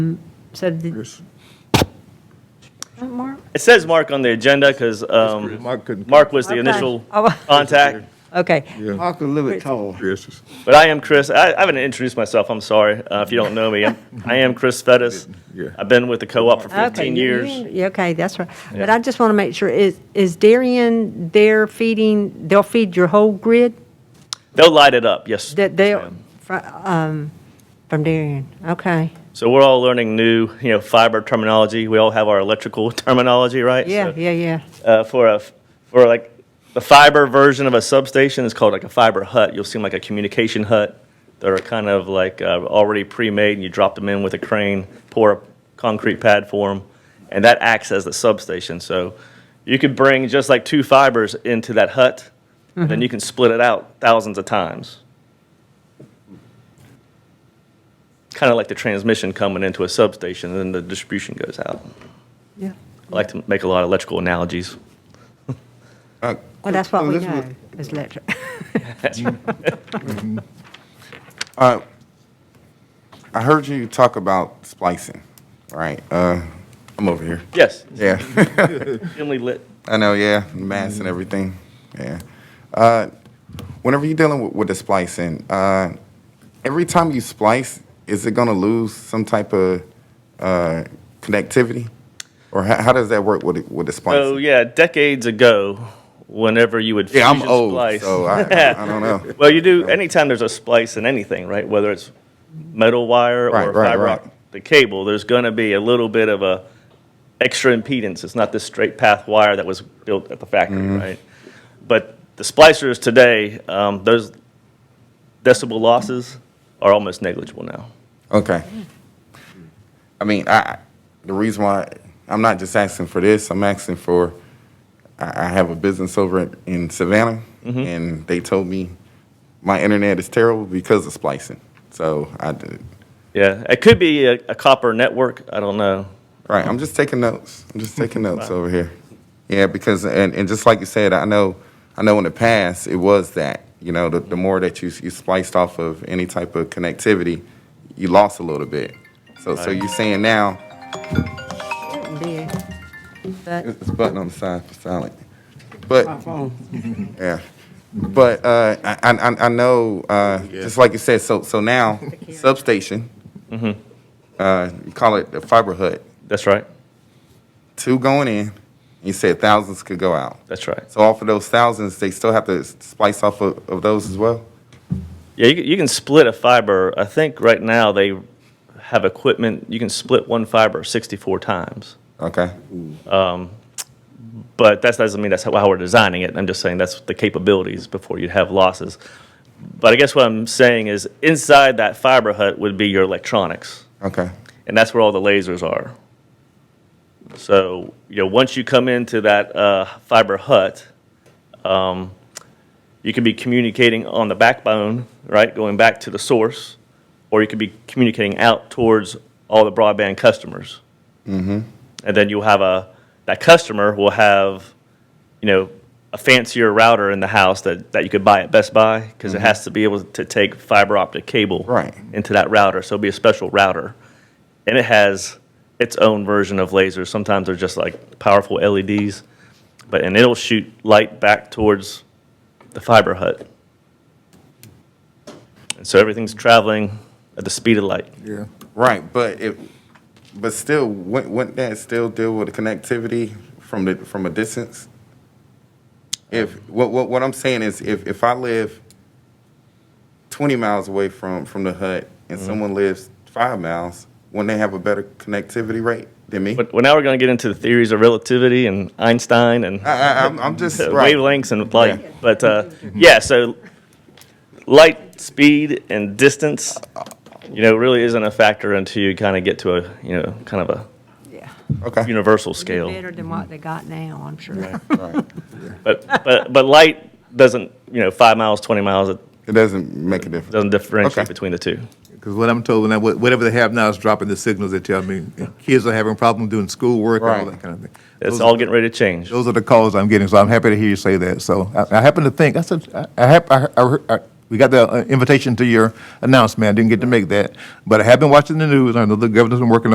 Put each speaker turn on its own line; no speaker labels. said the,
Yes.
Mark?
It says Mark on the agenda because um,
Mark couldn't.
Mark was
Okay.
the initial
Oh.
contact,
Okay,
Yeah,
Mark a little bit tall.
yes.
but I am Chris. I, I haven't introduced myself. I'm sorry uh, if you don't know me. I'm, I am Chris Fettis.
Yeah.
I've been with the co-op for 15
okay. you-
years.
you- yeah, Okay, that's right. But
Yeah.
I just want to make sure, is, is Darien there feeding, they'll feed your whole grid?
They'll light it up. Yes.
That
yes,
they,
ma'am.
from Darien, okay.
So we're all learning new, you know, fiber terminology. We all have our electrical terminology, right?
Yeah,
So,
yeah, yeah.
Uh, for a for like the fiber version of a substation is called like a fiber hut. You'll see 'em like a communication hut that are kind of like uh, already pre-made, and you drop them in with a crane, pour a concrete pad for them, and that acts as the substation. So you could bring just like two fibers into that hut, and then you can split it out thousands of times. Kind of like the transmission coming into a substation, and then the distribution goes out.
Yeah.
I like to make a lot of electrical analogies.
Well,
Well, that's what we know, is electric.
Uh, I heard you talk about splicing, right? Uh, I'm over here.
Yes,
Yeah,
dimly lit.
I know. Yeah, mass and everything. Yeah. Uh, whenever you're dealing with, with the splicing, uh, every time you splice, is it gonna lose some type of uh, connectivity, or how, how does that work with the, with the splicing?
So Oh, yeah, decades ago, whenever you would
yeah, I'm
fusion
old,
splice,
so I, I don't know.
well, you do anytime there's a splice in anything, right? Whether it's metal wire or
Right, right,
fiber
right.
optic cable, there's going to be a little bit of a extra impedance. It's not this straight path wire that was built at the factory,
Mm-hmm.
right? But the splicers today, um, those decibel losses are almost negligible now.
Okay. I mean, I- I, the reason why, I'm not just asking for this, I'm asking for, I, I have a business over in- in Savannah, and they told me my internet is terrible because of splicing. So I did,
Yeah, it could be a, a copper network. I don't know.
right, I'm just taking notes, I'm just taking notes over here. Yeah, because, and, and just like you said, I know, I know in the past, it was that, you know, the, the more that you, you spliced off of any type of connectivity, you lost a little bit. So, so you're saying now,
Big. But
It's a button on the side for silent.
My
But,
phone.
yeah. But uh, I, I, I know, uh, just like you said, so, so now, substation, uh, you call it the fiber hut,
That's right.
two going in, you said thousands could go out.
That's right.
So off of those thousands, they still have to splice off of, of those as well?
Yeah, you, can- you can split a fiber. I think right now they have equipment, you can split one fiber 64 times.
Okay.
But that doesn't mean that's how, how we're designing it. I'm just saying that's the capabilities before you'd have losses. But I guess what I'm saying is inside that fiber hut would be your electronics,
Okay.
and that's where all the lasers are. So, you know, once you come into that uh, fiber hut, You could be communicating on the backbone, right, going back to the source, or you could be communicating out towards all the broadband customers. And then you'll have a that customer will have, you know, a fancier router in the house that, that you could buy at Best Buy because it has to be able to take fiber optic cable
Right.
into that router. So it'll be a special router, and it has its own version of lasers. Sometimes they're just like powerful LEDs, but and it'll shoot light back towards the fiber hut. And so everything's traveling at the speed of light.
Yeah.
Right, but it, but still, wouldn't, wouldn't that still deal with the connectivity from the from a distance? If what what what I'm saying is, if if I live twenty miles away from from the hut and someone lives five miles, wouldn't they have a better connectivity rate than me?
But well, now we're going to get into the theories of relativity and Einstein and
I, I, I'm, I'm just
uh,
right. Mm-hmm.
wavelengths and light. But uh, yeah, so light speed and distance, you know, really isn't a factor until you kind of get to a you know kind of
yeah,
a
Okay.
universal
It'd be
scale.
better than what they got now, I'm sure.
Right.
But but but light doesn't you know five miles, twenty miles, it
It doesn't make a difference.
doesn't differentiate
Okay.
between the two.
Because what I'm told, now, wha- whatever they have now is dropping the signals, they tell me. Kids are having problems doing schoolwork and all
Right.
that kind of thing.
It's
Those-
all getting ready to change.
Those are the calls I'm getting, so I'm happy to hear you say that. So I, I happen to think, I said, I, I hap- I, I, heard- I, we got the uh, invitation to your announcement. I didn't get to make that. But I have been watching the news. I know the governor's been working